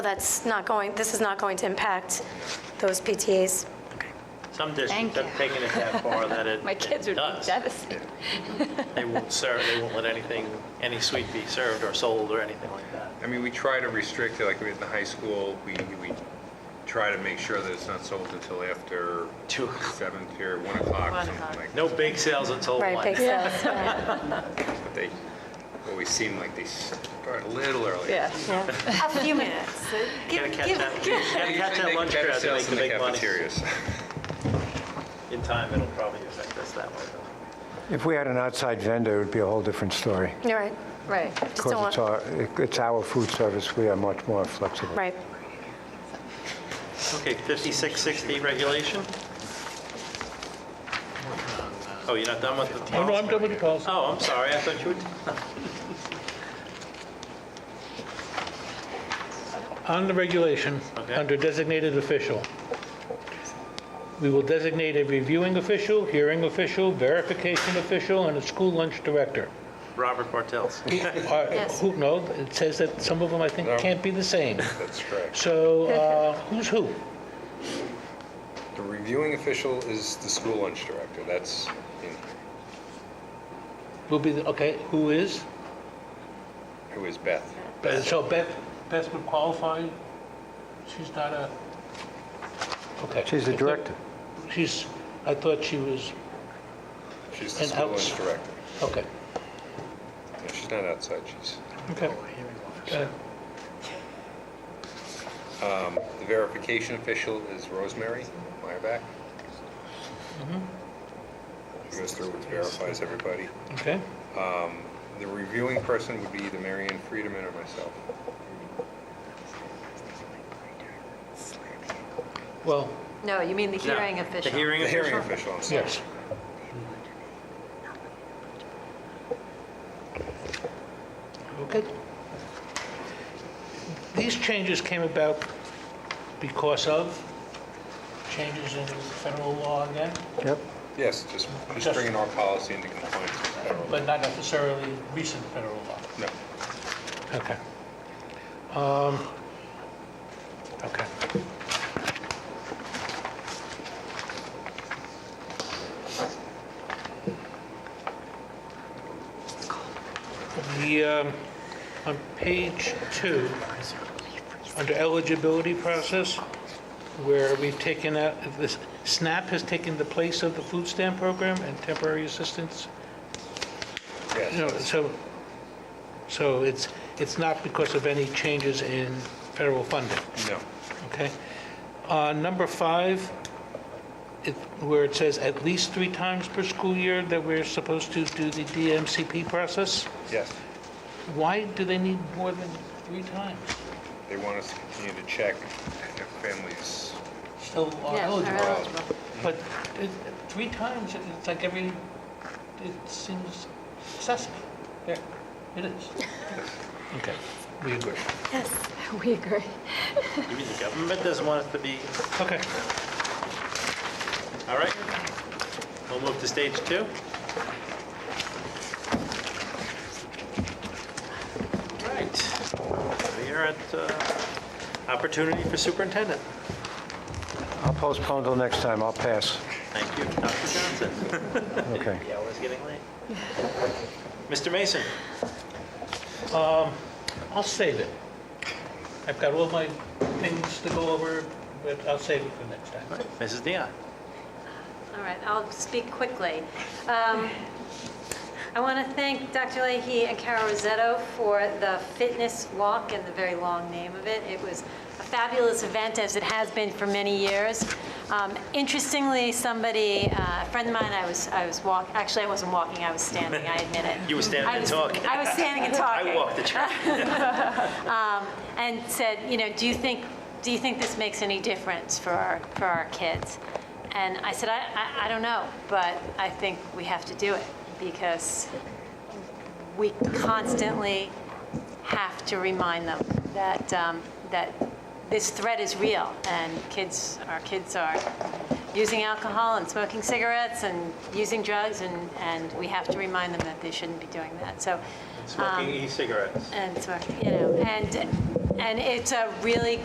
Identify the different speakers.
Speaker 1: That's not going, this is not going to impact those PTAs.
Speaker 2: Some districts
Speaker 3: Thank
Speaker 2: have
Speaker 3: you.
Speaker 2: taken it that far that it
Speaker 3: My kids would be
Speaker 2: it does.
Speaker 3: devastated.
Speaker 2: They won't serve, they won't let anything, any sweet be served or sold or anything like that.
Speaker 4: I mean, we try to restrict it, like we did in the high school, we, we try to make sure that it's not sold until after
Speaker 2: Two.
Speaker 4: seventh or one o'clock,
Speaker 3: One
Speaker 4: something
Speaker 3: o'clock.
Speaker 4: like
Speaker 2: No
Speaker 4: that.
Speaker 2: bake sales until one.
Speaker 1: Right, big sales, right,
Speaker 4: But they always seem like they start a little early.
Speaker 3: Yeah.
Speaker 1: yeah.
Speaker 5: A few minutes.
Speaker 2: Gotta catch that, gotta
Speaker 4: They
Speaker 2: catch that
Speaker 4: usually make
Speaker 2: lunch
Speaker 4: better
Speaker 2: crowd to
Speaker 4: sales
Speaker 2: make the
Speaker 4: in
Speaker 2: big money.
Speaker 4: cafeterias.
Speaker 2: In time, it'll probably affect us that way. though.
Speaker 6: If we had an outside vendor, it would be a whole different story.
Speaker 1: You're right.
Speaker 3: Right.
Speaker 1: Just don't
Speaker 6: Because it's
Speaker 1: want,
Speaker 6: our, it's our food service, we are much more flexible.
Speaker 1: right.
Speaker 2: Okay, 5660 regulation? Oh, you're not done with the...
Speaker 7: Oh, no, I'm done with the policy.
Speaker 2: Oh, I'm sorry, I thought you would...
Speaker 7: On the regulation,
Speaker 2: Okay.
Speaker 7: under designated official, we will designate a reviewing official, hearing official, verification official, and a school lunch director.
Speaker 2: Robert Bartels.
Speaker 7: Are- Who, no, it says that some of them, I think, can't be the same.
Speaker 4: That's correct.
Speaker 7: So uh, who's who?
Speaker 4: The reviewing official is the school lunch director, that's, in-
Speaker 7: Will be, the okay, who is?
Speaker 4: who is Beth.
Speaker 7: So Beth, Beth would qualify? She's not a, okay.
Speaker 6: She's the
Speaker 7: I thought-
Speaker 6: director.
Speaker 7: She's, I thought she was,
Speaker 4: She's the
Speaker 7: And
Speaker 4: school
Speaker 7: outs-
Speaker 4: lunch director.
Speaker 7: okay,
Speaker 4: No, She's not outside, she's,
Speaker 7: okay. Uh,
Speaker 4: the verification official is Rosemary Meyerback. She goes through and verifies everybody.
Speaker 7: Okay,
Speaker 4: The reviewing person would be either Mary Ann Friedman or myself.
Speaker 7: well,
Speaker 3: No, you mean the hearing
Speaker 2: No,
Speaker 3: official.
Speaker 2: The hearing
Speaker 4: The hearing
Speaker 2: official?
Speaker 4: official, I'm sorry.
Speaker 7: yes. Okay. These changes came about because of changes in federal law again,
Speaker 6: Yep.
Speaker 4: Yes, just, just
Speaker 7: Just-
Speaker 4: bringing our policy into compliance with federal law.
Speaker 7: but not necessarily recent federal law.
Speaker 4: No,
Speaker 7: Okay. Um, okay. The, um, on page two, under eligibility process, where we've taken out, this, SNAP has taken the place of the food stamp program and temporary assistance. No,
Speaker 4: yes,
Speaker 7: so, so it's, it's not because of any changes in federal funding,
Speaker 4: no.
Speaker 7: okay? Uh, Number five, it- where it says at least three times per school year that we're supposed to do the DMCP process,
Speaker 4: Yes,
Speaker 7: why do they need more than three times?
Speaker 4: they want us to continue to check if families,
Speaker 7: Still are
Speaker 3: Yeah,
Speaker 7: eligible.
Speaker 3: are eligible.
Speaker 7: But it- three times, it's like every, it seems excessive. Yeah, It is. Okay, we agree.
Speaker 3: We agree.
Speaker 2: You mean the government doesn't want us to be...
Speaker 7: Okay.
Speaker 2: All right. We'll move to stage two. All right. We are at uh, opportunity for superintendent.
Speaker 6: I'll postpone till next time, I'll pass.
Speaker 2: Thank you, Dr. Johnson.
Speaker 6: Okay.
Speaker 2: The hour's getting late. Mr. Mason?
Speaker 7: I'll save it. I've got all my things to go over, but I'll save it for next time.
Speaker 2: Mrs. Dion?
Speaker 5: All right, I'll speak quickly. Um, I want to thank Dr. Leahy and Carol Rosetto for the fitness walk and the very long name of it. It was a fabulous event, as it has been for many years. Um, Interestingly, somebody, uh, a friend of mine, I was, I was walk, actually, I wasn't walking, I was standing, I admit it.
Speaker 2: You were standing
Speaker 5: I
Speaker 2: and
Speaker 5: was-
Speaker 2: talking.
Speaker 5: I was standing and talking
Speaker 2: I walked the track.
Speaker 5: and said, you know, do you think, do you think this makes any difference for our, for our kids? And I said, I, I, I don't know, but I think we have to do it because we constantly have to remind them that, um, that this threat is real and kids, our kids are using alcohol and smoking cigarettes and using drugs and, and we have to remind them that they shouldn't be doing that. So Um,
Speaker 2: Smoking e-cigarettes.
Speaker 5: and so, you know, and, And it's a really